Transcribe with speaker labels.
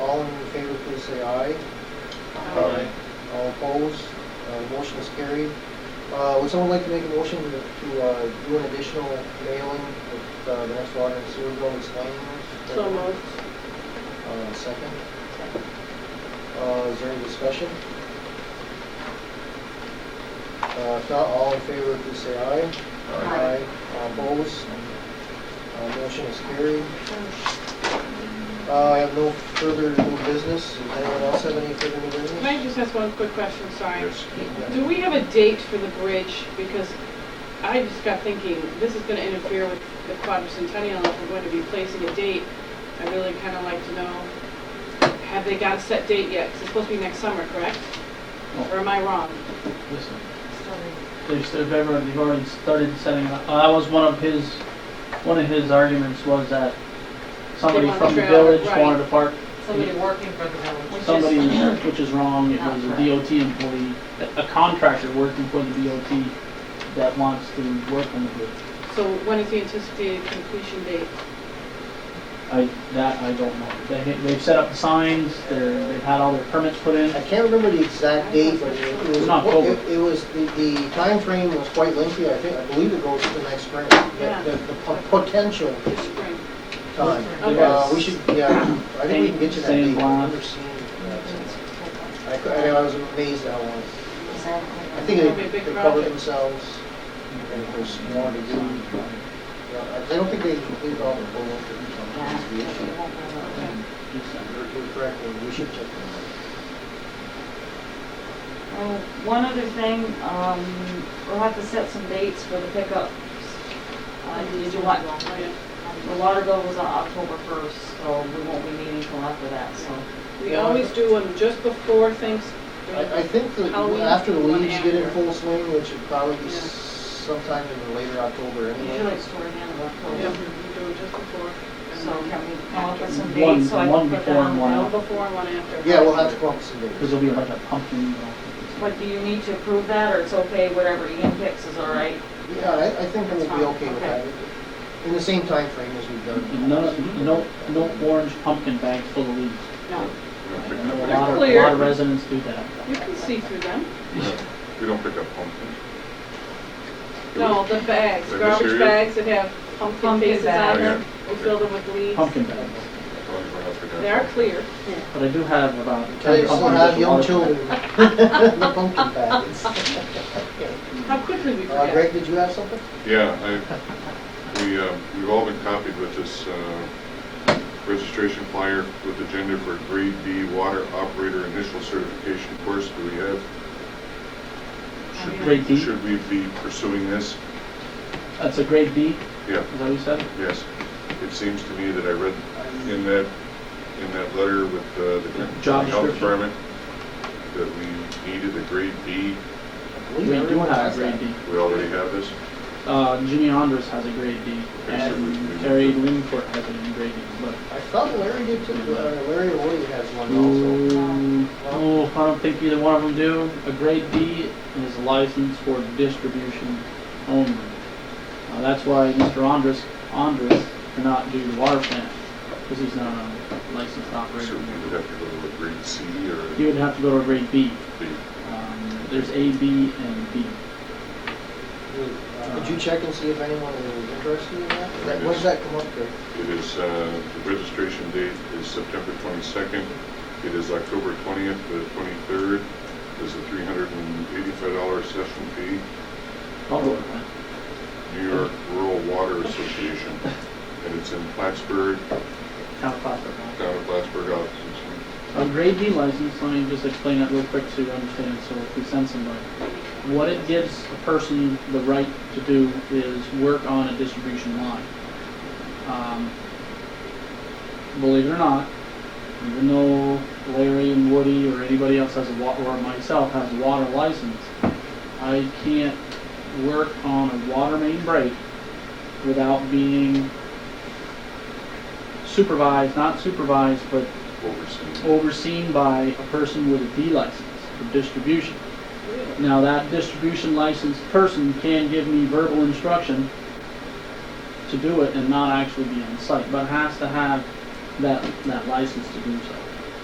Speaker 1: all in favor, please say aye.
Speaker 2: Aye.
Speaker 1: All opposed, Uh, motion is carried. Uh, Would someone like to make a motion to to, uh, do an additional mailing with uh, the next water and sewer bill explaining this?
Speaker 2: So moved.
Speaker 1: Uh, Second? Uh, Is there any discussion? Uh, If not, all in favor, please say aye.
Speaker 2: Aye.
Speaker 1: All opposed, Uh, motion is carried. Uh, I have no further new business. Does anyone else have any further new business?
Speaker 2: Can I just ask one quick question, sorry?
Speaker 3: Yes.
Speaker 2: Do we have a date for the bridge? Because I just got thinking, this is gonna interfere with the quadricentennial, if we're going to be placing a date, I really kinda like to know, have they got a set date yet? 'Cause it's supposed to be next summer, correct? Or am I wrong?
Speaker 4: Listen, they've, they've ever, they've already started setting it up. Uh, That was one of his, one of his arguments was that somebody
Speaker 2: want the
Speaker 4: from the
Speaker 2: trailer,
Speaker 4: village
Speaker 2: right.
Speaker 4: wanted to park,
Speaker 5: Somebody working for the village.
Speaker 4: somebody, which is wrong, it
Speaker 5: Not
Speaker 4: was a
Speaker 5: correct.
Speaker 4: DOT employee, a- a contractor working for the DOT that wants to work on the bridge.
Speaker 2: So when is the anticipated completion date?
Speaker 4: I, that I don't know. They, they've set up the signs, they're, they've had all their permits put in.
Speaker 1: I can't remember the exact date, but it was.
Speaker 4: It's not October.
Speaker 1: It it was, the, the timeframe was quite lengthy, I think, I believe it goes to the next spring,
Speaker 2: Yeah.
Speaker 1: the, the- the po- potential
Speaker 2: This spring?
Speaker 1: time.
Speaker 2: Okay.
Speaker 1: Uh, we should, yeah, I think we can get you that
Speaker 4: Same
Speaker 1: date. I've
Speaker 4: line.
Speaker 1: never seen that since. I, cou- I was amazed at how long. I think
Speaker 2: That'll be a
Speaker 1: they
Speaker 2: big
Speaker 1: they covered
Speaker 2: project.
Speaker 1: themselves, and of course, more to do. Yeah, I I don't think they completed all the full work. That's the issue.
Speaker 2: Okay.
Speaker 1: You're you're correct, and we should check them out.
Speaker 6: Oh, One other thing, um, we'll have to set some dates for the pickup. Uh, did you want,
Speaker 2: Oh, yeah.
Speaker 6: the water bill was on October first, so we won't be meeting till after that, so.
Speaker 2: We always do them just before things.
Speaker 1: I, I think that
Speaker 2: Halloween,
Speaker 1: after the
Speaker 2: one
Speaker 1: leaves get in
Speaker 2: after.
Speaker 1: full swing, which would probably be
Speaker 2: Yeah.
Speaker 1: sometime in later October
Speaker 6: Usually
Speaker 1: anyway.
Speaker 6: it's toward the end of
Speaker 2: Yeah, we
Speaker 6: October,
Speaker 2: do it just before.
Speaker 6: so can we come up with some
Speaker 4: One-
Speaker 6: dates so I
Speaker 4: one
Speaker 6: can put that
Speaker 4: before
Speaker 6: on
Speaker 4: and
Speaker 6: the
Speaker 4: one
Speaker 2: One
Speaker 6: bill?
Speaker 2: before and one after.
Speaker 1: Yeah, we'll have to come up with some
Speaker 4: Because
Speaker 1: dates.
Speaker 4: there'll be like a pumpkin, you know.
Speaker 6: But do you need to approve that, or it's okay, whatever Ian picks is all right?
Speaker 1: Yeah, I, I think we'll be okay with that.
Speaker 6: Okay.
Speaker 1: In the same time frame as we've done.
Speaker 4: No, no, no orange pumpkin bags full of leaves.
Speaker 2: No,
Speaker 3: We don't
Speaker 4: I
Speaker 3: pick
Speaker 4: know
Speaker 3: up
Speaker 4: A lot of, a
Speaker 2: Clear.
Speaker 4: lot of residents do that.
Speaker 2: you can see through them.
Speaker 3: pumpkins. We don't pick up pumpkins.
Speaker 2: No, the bags,
Speaker 3: They're
Speaker 2: garbage
Speaker 3: cereal?
Speaker 2: bags that have pumpkin
Speaker 6: Pumpkin
Speaker 2: faces on
Speaker 6: bags.
Speaker 2: them. We fill them with leaves.
Speaker 4: Pumpkin bags.
Speaker 2: They are clear.
Speaker 4: But I do have about
Speaker 1: They
Speaker 4: ten
Speaker 1: still
Speaker 4: pumpkins.
Speaker 1: have
Speaker 4: with
Speaker 1: young
Speaker 4: water.
Speaker 1: children in the pumpkin bags.
Speaker 2: How quickly we
Speaker 1: Uh,
Speaker 2: forget.
Speaker 1: Greg, did you have something?
Speaker 3: Yeah, I, we, uh, we've all been copied with this uh, registration flyer with agenda for grade B water operator initial certification course that we have. Should-
Speaker 4: Grade B?
Speaker 3: Should we be pursuing this?
Speaker 4: That's a grade B,
Speaker 3: Yeah,
Speaker 4: is that what you said?
Speaker 3: yes. It seems to me that I read in that, in that letter with uh, the
Speaker 4: Job
Speaker 3: health
Speaker 4: description.
Speaker 3: department that we needed a grade B.
Speaker 1: I
Speaker 4: We
Speaker 1: believe
Speaker 4: do
Speaker 1: everyone
Speaker 4: have
Speaker 1: has
Speaker 4: a grade
Speaker 1: that.
Speaker 4: B.
Speaker 3: We already have this?
Speaker 4: Uh, Jimmy Andres has a grade B,
Speaker 3: Okay, so we- we-
Speaker 4: and Terry Lingford has it in grade B, but.
Speaker 1: I thought Larry did too, but, uh, Larry or Woody has one
Speaker 4: Mm.
Speaker 1: also.
Speaker 4: Ooh, No, um, oh, I don't think either one of them do. A grade B is licensed for distribution only. Uh, that's why Mr. Andres, Andres cannot do the water plant, because he's not a licensed
Speaker 3: So
Speaker 4: operator.
Speaker 3: we would have to go to a grade C or
Speaker 4: He would have to go to a grade B.
Speaker 3: B?
Speaker 4: Um, There's A, B, and B.
Speaker 1: Uh, Could you check and see if anyone is interested in that?
Speaker 3: There it
Speaker 1: When does
Speaker 3: is.
Speaker 1: that come up, Greg?
Speaker 3: It is, uh, the registration date is September 22nd. It is October 20th to the 23rd. There's a $385 session fee,
Speaker 4: Public plant.
Speaker 3: New York Rural Water Association. And it's in Plattsburgh,
Speaker 4: Town of Plattsburgh.
Speaker 3: down in Plattsburgh, offices.
Speaker 4: A grade D license, let me just explain that real quick so you understand, so if we send somebody. What it gives a person the right to do is work on a distribution line. Um, Believe it or not, even though Larry and Woody or anybody else has a wa, or myself has a water license, I can't work on a water main break without being supervised, not supervised, but
Speaker 3: overseas.
Speaker 4: overseen by a person with a D license for distribution. Now, that distribution licensed person can give me verbal instruction to do it and not actually be on site, but has to have that, that license to do so.